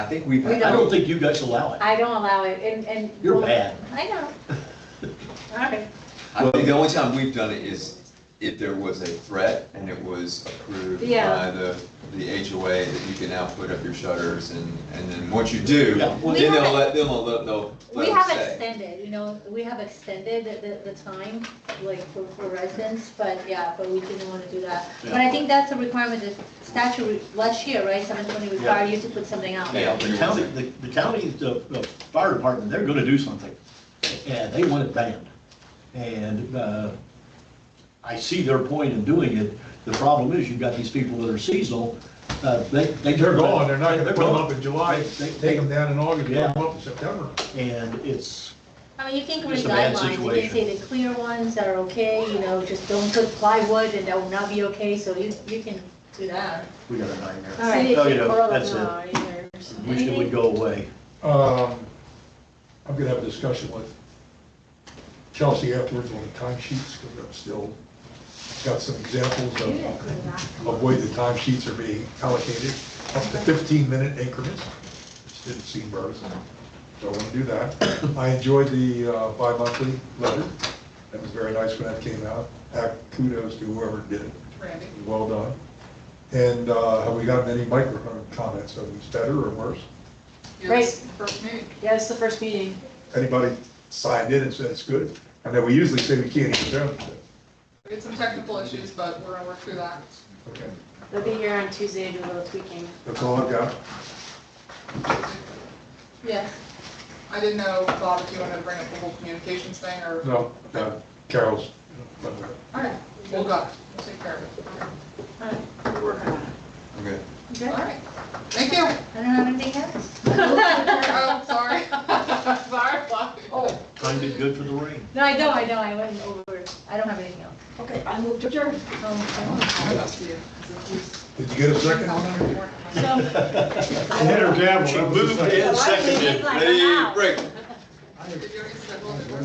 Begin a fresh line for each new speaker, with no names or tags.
I think we've,
We
I
don't-
don't,
think you guys allow it.
I don't allow it, and, and.
You're bad.
I know. All right.
I think the only time we've done it is if there was a threat and it was approved
Yeah.
by the, the HOA that you can now put up your shutters and, and then once you do,
Yeah,
then
well-
We
they'll
haven't-
let, then they'll, let- they'll,
We
let
have
them say.
extended, you know, we have extended the, the, the time, like, for, for residents, but yeah, but we didn't wanna do that. But I think that's a requirement, the statute re- last year, right, seven twenty required you to put something out.
Yeah, the county, the, the county, the, the fire department, they're gonna do something, and they want it banned. And, uh, I see their point in doing it, the problem is you've got these people that are seasonal, uh, they, they.
They're gone, they're not gonna put them up in July,
They- they-
take them down in August, put
Yeah.
them up in September.
And it's,
I mean, you can create
It's a bad
guidelines, you can
situation.
say the clear ones are okay, you know, just don't put plywood, and that will not be okay, so you, you can do that.
we got a nightmare.
All right.
No, you don't, that's it, wish it would go away.
Um, I'm gonna have a discussion with Chelsea afterwards on the time sheets, because I'm still, got some examples
Do that,
of,
clear that.
of way the time sheets are being allocated, up to fifteen minute increments, which didn't seem partisan, so I wanna do that. I enjoyed the uh, bi-monthly letter, that was very nice when that came out, Uh, kudos to whoever did it.
Randy.
Well done. And uh, have we gotten any microphone comments? Are we better or worse?
You're the First meeting.
Yeah, it's the first meeting.
Anybody signed in and said it's good? I know we usually say we can't hear them.
We had some technical issues, but we're gonna work through that.
Okay,
They'll be here on Tuesday to do a little tweaking.
That's all I've got.
Yes,
I didn't know, Bob, if you wanted to bring up the whole communications thing, or,
No, uh, Carol's.
all right, we'll go, we'll take care of it.
all right,
We're working on it.
Okay.
Okay.
All right, thank you.
I don't have anything else.
Oh, sorry. Sorry. Oh,
Timed it good for the rain.
No, I know, I know, I went over, I don't have anything else.
Okay, I moved to adjourn.
that's you.
Did you get a second?
So,
Hit her gavel.
She moved in
Why did you
seconded.
get like an
Ready,
hour?
break.
You're doing it, so we'll do it.